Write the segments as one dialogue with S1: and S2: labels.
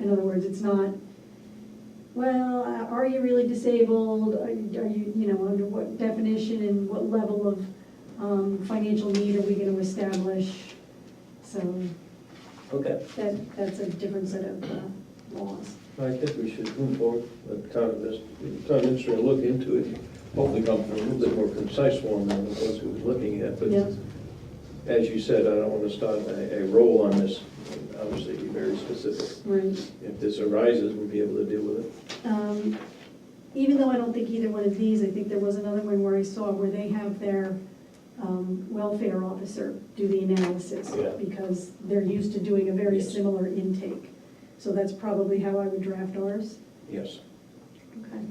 S1: In other words, it's not, well, uh, are you really disabled? Are you, are you you know, under what definition and what level of um, financial need are we going to establish? So
S2: Okay,
S1: that, that's a different set of uh, laws.
S3: I think we should move forward, let town admin- town administrator look into it, hopefully come up with a little bit more concise one than the ones we was looking at, but
S1: Yeah.
S3: as you said, I don't want to start a, a roll on this, obviously be very specific.
S1: Right.
S3: If this arises, we'll be able to deal with it.
S1: Um, Even though I don't think either one of these, I think there was another one where I saw where they have their um, welfare officer do the analysis.
S2: Yeah.
S1: Because they're used to doing a very
S3: Yes.
S1: similar intake. So that's probably how I would draft ours.
S3: Yes,
S1: Okay.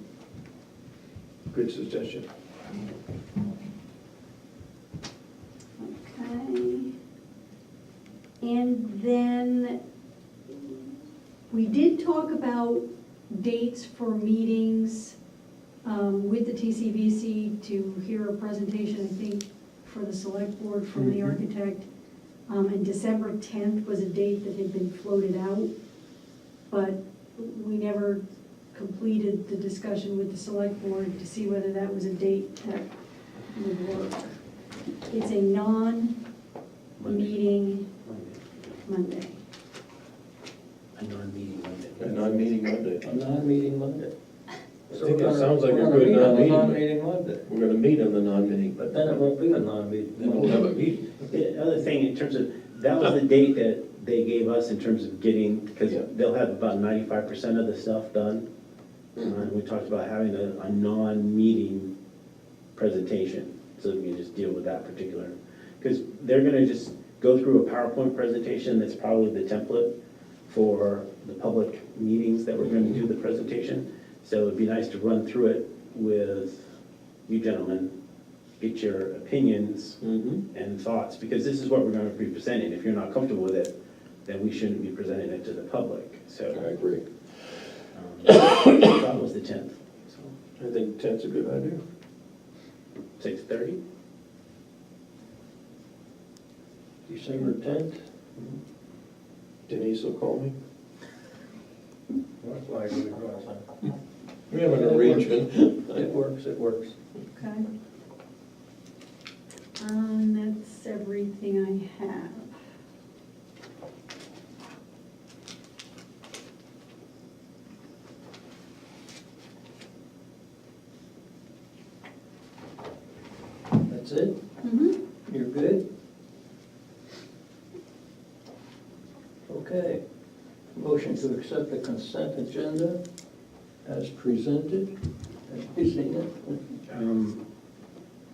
S3: good suggestion.
S1: Okay. And then, we did talk about dates for meetings um, with the TCVC to hear a presentation, I think, for the select board from the
S3: Mhm.
S1: architect. Um, And December 10th was a date that had been floated out, but we never completed the discussion with the select board to see whether that was a date that would work. It's a non-meeting
S2: Monday.
S1: Monday.
S2: A non-meeting
S3: A
S2: Monday.
S3: non-meeting Monday.
S4: A non-meeting Monday.
S3: I think that sounds like a
S4: We're gonna
S3: good
S4: meet on a
S3: non-meeting.
S4: non-meeting Monday.
S3: We're going to meet on the non-meeting,
S2: But then it won't be a non-meeting.
S3: then we'll have a meeting.
S2: The other thing in terms of, that was the date that they gave us in terms of getting, because
S3: Yeah.
S2: they'll have about ninety-five percent of the stuff done. Uh, And we talked about having a, a non-meeting presentation, so we can just deal with that particular. Because they're gonna just go through a PowerPoint presentation that's probably the template for the public meetings that we're gonna do the presentation. So it'd be nice to run through it with you gentlemen, get your opinions
S3: Mm-hmm.
S2: and thoughts, because this is what we're gonna be presenting. If you're not comfortable with it, then we shouldn't be presenting it to the public, so.
S3: agree.
S2: um, That was the tenth, so,
S3: I think ten's a good idea.
S2: six thirty?
S3: December tenth. Mm-hmm. Denise will call me.
S4: That's why I do it all the time.
S3: We have an arrangement.
S4: It works, it works.
S1: Okay. Um, that's everything I have.
S4: That's it?
S1: Mhm.
S4: You're good? Okay. Motion to accept the consent agenda as presented, as presented.
S2: Um,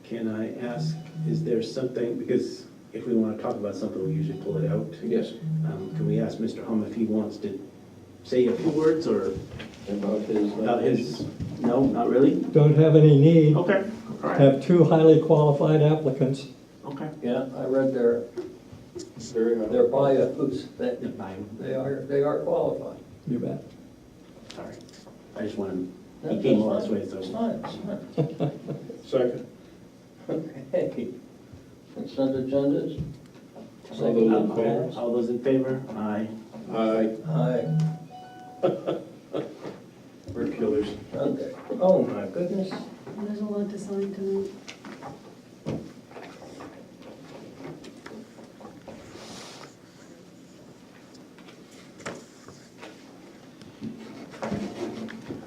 S2: Can I ask, is there something, because if we wanna talk about something, we usually pull it out.
S3: Yes,
S2: Um, Can we ask Mr. Hum if he wants to say a few words or
S3: about his. uh,
S2: about his, no, not really?
S5: Don't have any need,
S2: Okay, all right,
S5: have two highly qualified applicants.
S2: okay.
S4: Yeah, I read their,
S3: Very
S4: their
S3: high.
S4: bios, that
S2: Yeah, fine,
S4: they are, they are qualified.
S5: You bet.
S2: sorry. I just wanted, he came last way, so.
S4: It's fine, it's fine.
S3: Second.
S4: Okay. Consent agendas?
S3: All those in favor?
S2: Um, All those in favor? Aye.
S3: Aye.
S4: Aye,
S3: We're killers.
S4: okay. Oh, my goodness.
S1: And There's a lot to sign tonight.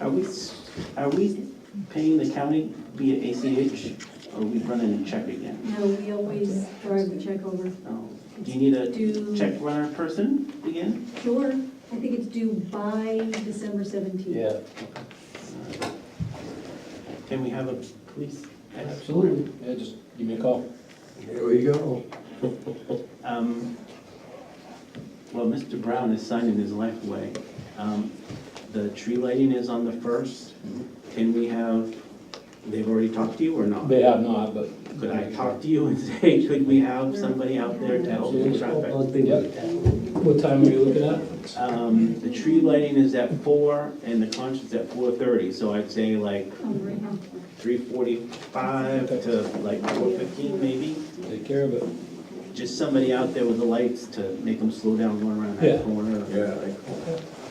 S2: Are we, s- are we paying the county via ACH, or are we running a check again?
S1: No, we always drive the check over.
S2: Oh, Do you need a
S1: Due,
S2: check runner person again?
S1: sure, I think it's due by December 17th.
S4: Yeah,
S2: Can we have a police?
S4: absolutely.
S3: Yeah, just give me a call.
S4: Here we go.
S2: Um, Well, Mr. Brown is signing his life away. Um, The tree lighting is on the first. Can we have, they've already talked to you or not?
S6: They have not, but.
S2: Could I talk to you and say, could we have somebody out there to help with traffic?
S6: What time are you looking at?
S2: Um, the tree lighting is at four and the concert's at four thirty, so I'd say like
S1: Oh, right now.
S2: three forty-five to like four fifteen maybe.
S6: Take care of it.
S2: Just somebody out there with the lights to make them slow down going around
S6: Yeah.
S2: that corner.
S3: Yeah, I call.